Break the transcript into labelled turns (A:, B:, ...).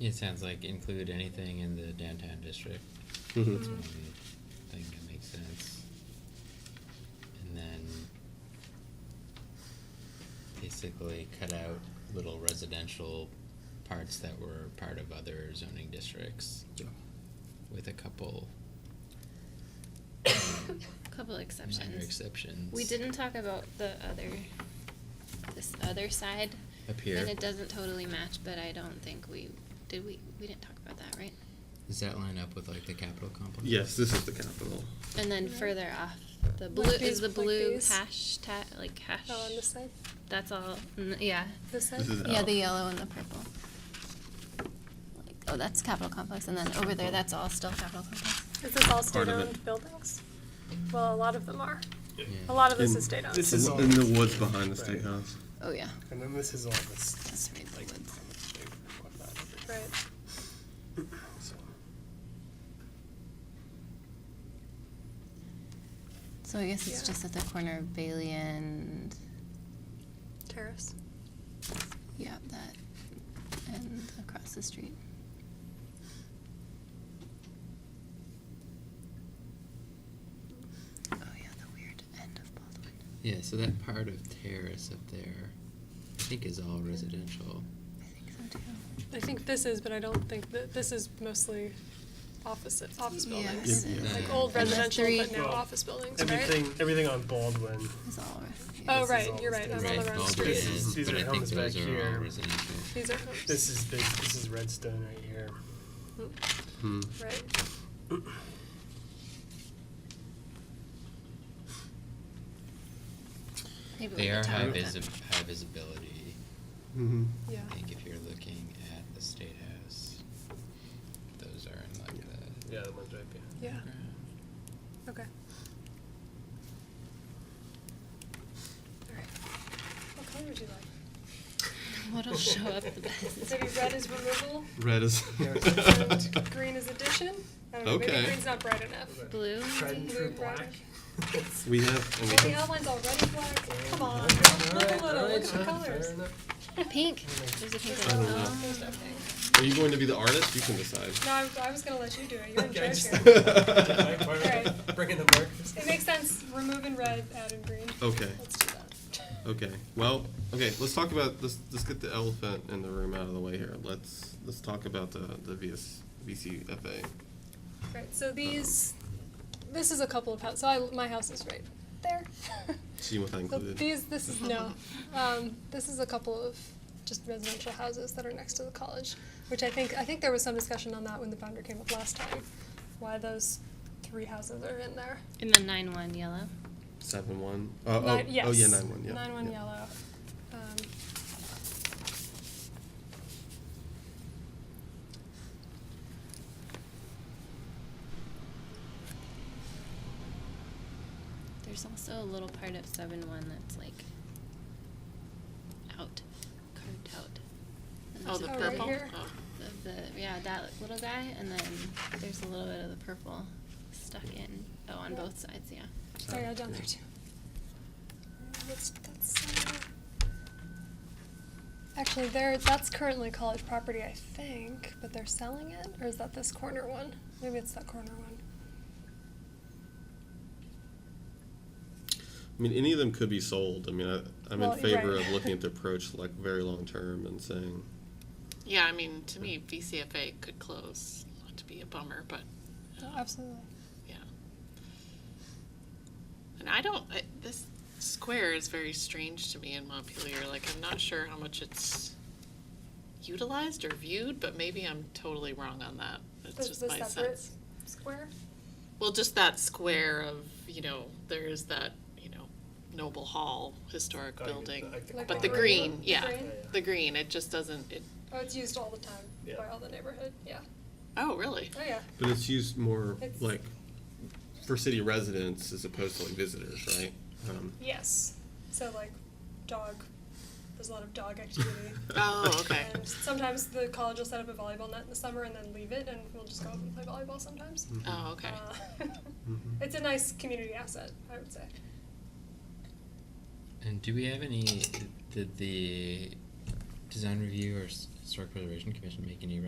A: It sounds like include anything in the downtown district.
B: Mhm.
A: That's one thing that makes sense. And then basically cut out little residential parts that were part of other zoning districts
B: Yeah.
A: with a couple
C: Couple
A: minor
C: exceptions.
A: exceptions.
C: We didn't talk about the other, this other side.
A: Up here.
C: And it doesn't totally match, but I don't think we, did we, we didn't talk about that, right?
A: Does that line up with like the capital complex?
B: Yes, this is the capital.
C: And then
D: No.
C: further off, the
D: Like
C: blue, is
D: these-
C: the
D: like
C: blue
D: these?
C: hash ta- like hash?
D: Oh, on this side?
C: That's all, mm, yeah.
D: This side?
B: This is
C: Yeah,
B: out.
C: the uh, yellow and the purple. Like, oh, that's capital complex, and then over there, that's all still capital complex.
D: Is this all
B: Part of it.
D: state-owned buildings? Well, a lot of them are.
E: Yeah.
A: Yeah.
D: A lot of this
B: In-
D: is state-owned.
E: This is all-
B: In the woods behind the state
E: Right.
B: house.
C: Oh yeah,
E: And then this is all this
C: that's right. the
E: like
C: woods.
E: climate shape and whatnot.
D: Right.
E: everything. So,
C: So I guess it's
D: Yeah.
C: just at the corner of Bailey and
D: Terrace.
C: yeah, that and across the street. Oh yeah, the weird end of Baldwin.
A: Yeah, so that part of Terrace up there, I think is all residential.
C: I think so too.
D: I think this is, but I don't think that, this is mostly office, office
C: Yeah,
D: buildings.
C: Yeah.
D: Like
A: yeah.
D: old
C: And the
D: residential, but
C: three-
D: now
E: Well,
D: office buildings, right?
E: Everything, everything on Baldwin.
C: It's all yeah.
D: Oh
E: This is
D: right,
E: all
D: you're right,
E: state.
D: I'm on the
A: Right,
D: wrong
A: Baldwin
D: street.
E: This
A: is,
E: is- these
A: but
E: are
A: I think
E: homes
A: those
E: back
A: are all
E: here.
A: residential.
D: These are homes.
E: This is big, this is Redstone right here.
B: Hmm.
D: Mm, Right.
C: Maybe we
A: They
C: could
A: are
C: talk
A: high
C: about
A: visi-
C: that.
A: high visibility,
B: Mhm.
D: Yeah.
A: I think if you're looking at the State House, those are in like the.
E: Yeah, the ones right behind.
D: Yeah. Okay. Alright. What color would you like?
C: What'll show up the best?
D: Maybe red is removal
B: Red is.
D: and green is addition? I don't know,
B: Okay.
D: maybe green's not bright enough.
C: Blue.
E: Tried and true
D: Blue, brown.
E: black.
B: We have. a
D: Well,
B: lot
D: the
B: of-
D: other one's already black, come on,
E: Alright,
D: look a
E: alright,
D: little, look at the
E: alright,
D: colors.
E: fair enough.
C: Pink. There's a pink
D: There's
C: one.
D: no-
C: Oh.
D: there's no pink.
B: Are you going to be the artist? You can decide.
D: No, I, I was gonna let you do it, you're in
E: Okay, I
D: charge
E: just-
D: here.
E: Alright,
D: Alright.
E: Bring in the markers.
D: It makes sense, remove in red, add in green.
B: Okay.
D: Let's do that.
B: Okay. Well. Okay. Let's talk about. Let's let's get the elephant in the room out of the way here. Let's let's talk about the the VS, VCFA.
D: Right, so these, this is a couple of houses, so I, my house is right there.
B: So you want that
D: So
B: included?
D: these, this is no. Um, this is a couple of just residential houses that are next to the college, which I think I think there was some discussion on that when the founder came up last time, why those three houses are in there.
C: And the nine one yellow.
B: Seven one. Oh, oh,
D: Nine- yes.
B: oh yeah, nine one. Yeah.
D: Nine one
B: yeah.
D: yellow. Um,
C: There's also a little part of seven one that's like out, carved out. And
F: Oh,
C: there's
F: the
C: a
D: Oh,
C: purple.
D: right here?
F: Oh.
C: The, the yeah, that little guy, and then there's a little bit of the purple stuck in. Oh, on
D: Yeah.
C: both sides, yeah.
D: sorry, I down there too. That's, that's, uh, actually, there. That's currently college property, I think, but they're selling it, or is that this corner one? Maybe it's that corner one.
B: I mean, any of them could be sold. I mean, I, I'm
D: Well,
B: in favor
D: right.
B: of looking at the approach like very long term and saying,
F: Yeah, I mean, to me, VCFA could close, not to be a bummer, but
D: No, absolutely.
F: yeah. And I don't, I, this square is very strange to me in Montpelier, like, I'm not sure how much it's utilized or viewed, but maybe I'm totally wrong on that, it's
D: This
F: just
D: is a
F: my sense.
D: separate square.
F: Well, just that square of, you know, there is that, you know, Noble Hall historic
E: Oh, you-
F: building,
E: like the
D: Like
F: but the
D: corner.
F: green,
D: The
F: yeah,
D: green?
F: the green, it just doesn't, it,
D: Oh, it's used all the time
E: Yeah.
D: by all the neighborhood. Yeah.
F: oh, really?
D: Oh yeah.
B: but it's used more
D: It's-
B: like for city residents as opposed to like visitors, right? Um,
D: Yes. So like, dog. There's a lot of dog activity.
F: Oh, okay.
D: And sometimes the college will set up a volleyball net in the summer and then leave it, and we'll just go up and play volleyball sometimes.
F: Oh, okay.
D: Uh,
B: Mhm.
D: it's a nice community asset, I would say.
A: And do we have any, did the design review or s- historic preservation commission make any